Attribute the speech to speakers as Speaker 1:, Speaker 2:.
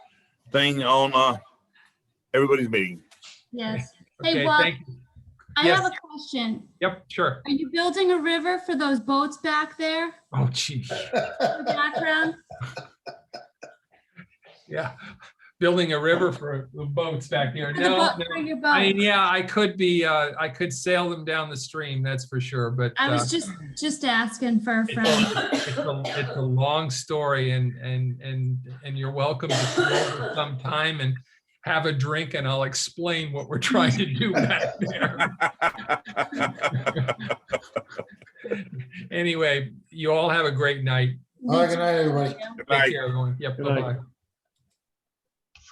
Speaker 1: thing on, uh, everybody's meeting.
Speaker 2: Yes. Hey,
Speaker 3: Okay,
Speaker 2: Bob,
Speaker 3: thank you.
Speaker 2: I have
Speaker 3: Yes.
Speaker 2: a question.
Speaker 3: Yep, sure.
Speaker 2: Are you building a river for those boats back there?
Speaker 3: Oh, gee.
Speaker 2: in the Background?
Speaker 3: Yeah. Building a river for the boats back there.
Speaker 2: For the
Speaker 3: No,
Speaker 2: boat-
Speaker 3: no.
Speaker 2: For your
Speaker 3: I mean,
Speaker 2: boat?
Speaker 3: yeah, I could be, uh, I could sail them down the stream, that's for sure, but
Speaker 2: I
Speaker 3: uh,
Speaker 2: was just, just asking for a
Speaker 3: it's
Speaker 2: friend.
Speaker 3: a- It's a it's a long story and, and, and, and you're welcome to come over sometime and have a drink and I'll explain what we're trying to do back there. Anyway, you all have a great night.
Speaker 4: All right, good night, everybody.
Speaker 3: Take care, everyone. Yep,
Speaker 5: Good night.
Speaker 3: bye-bye.